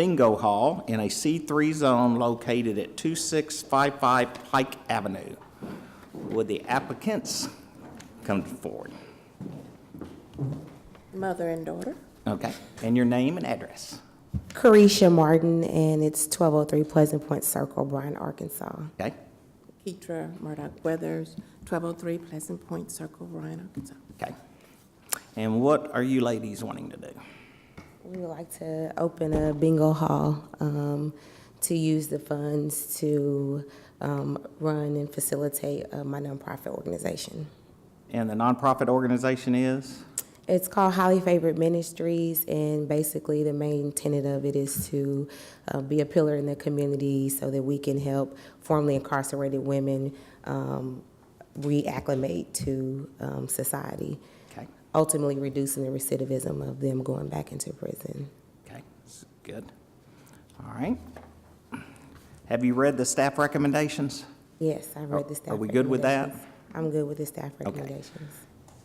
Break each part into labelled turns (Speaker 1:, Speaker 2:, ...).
Speaker 1: bingo hall in a C3 zone located at 2655 Pike Avenue. Would the applicants come forward?
Speaker 2: Mother and daughter.
Speaker 1: Okay, and your name and address.
Speaker 3: Carisha Martin, and it's 1203 Pleasant Point Circle, Bryan, Arkansas.
Speaker 1: Okay,
Speaker 2: Keitra Murdoch Weathers, 1203 Pleasant Point Circle, Ryan, Arkansas.
Speaker 1: okay. And what are you ladies wanting to do?
Speaker 3: We would like to open a bingo hall um, to use the funds to um, run and facilitate uh, my nonprofit organization.
Speaker 1: And the nonprofit organization is?
Speaker 3: It's called Highly Favored Ministries, and basically the main tenet of it is to uh, be a pillar in the community so that we can help formerly incarcerated women um, reacclimate to um, society,
Speaker 1: Okay,
Speaker 3: ultimately reducing the recidivism of them going back into prison.
Speaker 1: okay, that's good. All right. Have you read the staff recommendations?
Speaker 3: Yes, I read the staff.
Speaker 1: Are we good with that?
Speaker 3: recommendations. I'm good with the staff recommendations.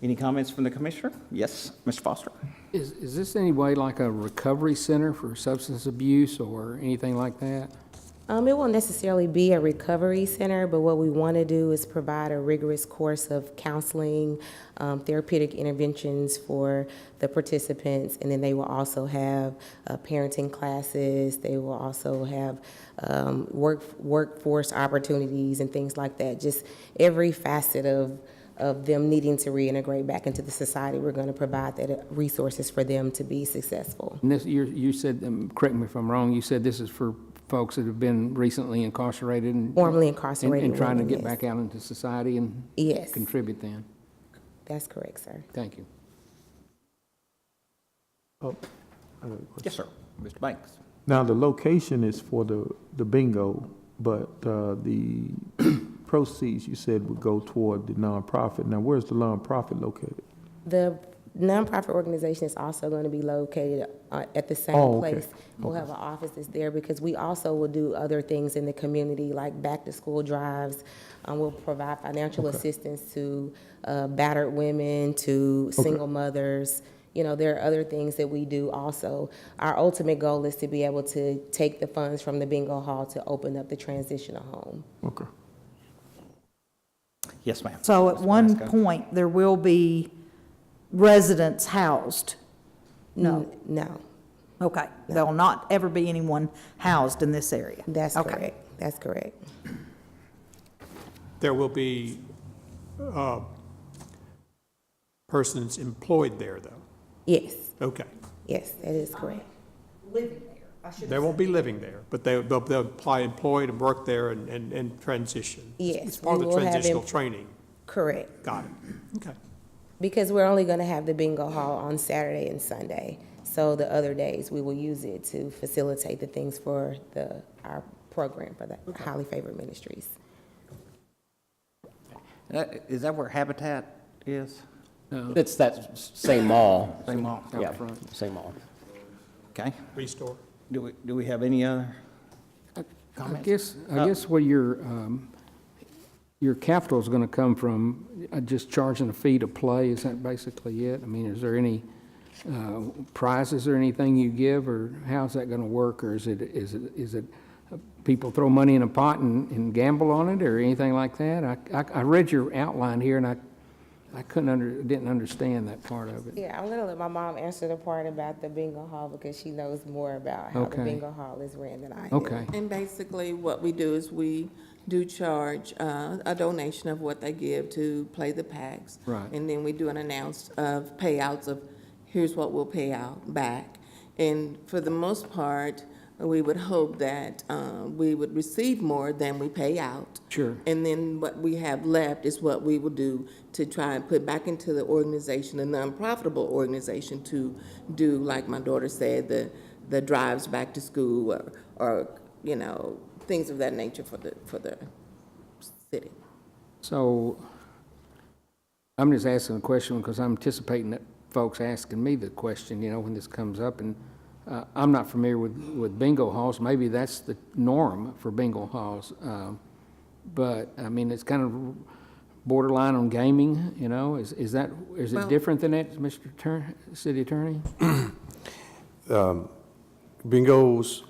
Speaker 1: Any comments from the commissioner? Yes, Mr. Foster?
Speaker 4: Is, is this any way like a recovery center for substance abuse or anything like that?
Speaker 3: Um, it won't necessarily be a recovery center, but what we want to do is provide a rigorous course of counseling, um, therapeutic interventions for the participants, and then they will also have uh, parenting classes. They will also have um, work workforce opportunities and things like that. Just every facet of of them needing to reintegrate back into the society, we're going to provide that uh, resources for them to be successful.
Speaker 4: And this, you, you said, um, correct me if I'm wrong, you said this is for folks that have been recently incarcerated and.
Speaker 3: Formerly
Speaker 4: and-
Speaker 3: incarcerated
Speaker 4: And trying to
Speaker 3: women,
Speaker 4: get
Speaker 3: yes.
Speaker 4: back out into society and
Speaker 3: Yes,
Speaker 4: contribute then.
Speaker 3: that's correct, sir.
Speaker 4: Thank you.
Speaker 1: Yes, sir. Mr. Banks?
Speaker 5: Now, the location is for the, the bingo, but uh, the proceeds, you said, would go toward the nonprofit. Now, where's the nonprofit located?
Speaker 3: The nonprofit organization is also going to be located uh, at the same
Speaker 5: Oh, okay.
Speaker 3: place. We'll have an office that's there because we also will do other things in the community, like back-to-school drives. Um, We'll provide financial assistance to uh, battered women, to single mothers. You know, there are other things that we do also. Our ultimate goal is to be able to take the funds from the bingo hall to open up the transitional home.
Speaker 5: Okay.
Speaker 1: Yes, ma'am.
Speaker 6: So at one point, there will be residents housed. No.
Speaker 3: N- No,
Speaker 6: Okay, there'll not ever be anyone housed in this area.
Speaker 3: that's
Speaker 6: Okay.
Speaker 3: correct. That's correct.
Speaker 7: there will be uh, persons employed there, though.
Speaker 3: Yes,
Speaker 7: Okay.
Speaker 3: yes, that is correct.
Speaker 7: They won't be living there, but they, they'll, they'll apply employed and work there and, and, and transition.
Speaker 3: Yes,
Speaker 7: It's part of
Speaker 3: we
Speaker 7: the
Speaker 3: will have em-
Speaker 7: transitional training.
Speaker 3: Correct.
Speaker 7: Got it. Okay.
Speaker 3: Because we're only going to have the bingo hall on Saturday and Sunday. So the other days, we will use it to facilitate the things for the, our program for the highly favored ministries.
Speaker 1: Uh, Is that where Habitat is?
Speaker 8: It's that same mall.
Speaker 1: Same mall?
Speaker 8: Yeah, same mall.
Speaker 1: Okay.
Speaker 7: Restore.
Speaker 1: Do we, do we have any other
Speaker 4: I
Speaker 1: comments?
Speaker 4: guess, I guess where your, um, your capital's gonna come from, uh, just charging a fee to play, is that basically it? I mean, is there any, uh, prizes or anything you give, or how's that gonna work? Or is it, is it, is it, uh, people throw money in a pot and, and gamble on it, or anything like that? I, I, I read your outline here, and I, I couldn't under, didn't understand that part of it.
Speaker 3: Yeah, I'm going to let my mom answer the part about the bingo hall because she knows more about how the
Speaker 4: Okay.
Speaker 3: bingo hall is ran than I do.
Speaker 4: Okay,
Speaker 2: And basically, what we do is we do charge uh, a donation of what they give to play the packs.
Speaker 4: Right.
Speaker 2: And then we do an announce of payouts of, here's what we'll pay out back. And for the most part, we would hope that uh, we would receive more than we pay out.
Speaker 4: Sure.
Speaker 2: And then what we have left is what we will do to try and put back into the organization, a nonprofitable organization to do, like my daughter said, the, the drives back to school or, or, you know, things of that nature for the, for the city.
Speaker 4: so, I'm just asking a question because I'm anticipating that folks asking me the question, you know, when this comes up, and uh, I'm not familiar with, with bingo halls. Maybe that's the norm for bingo halls. um, But, I mean, it's kind of borderline on gaming, you know? Is, is that, is it different than that, Mr. Attorney, City Attorney?
Speaker 7: bingos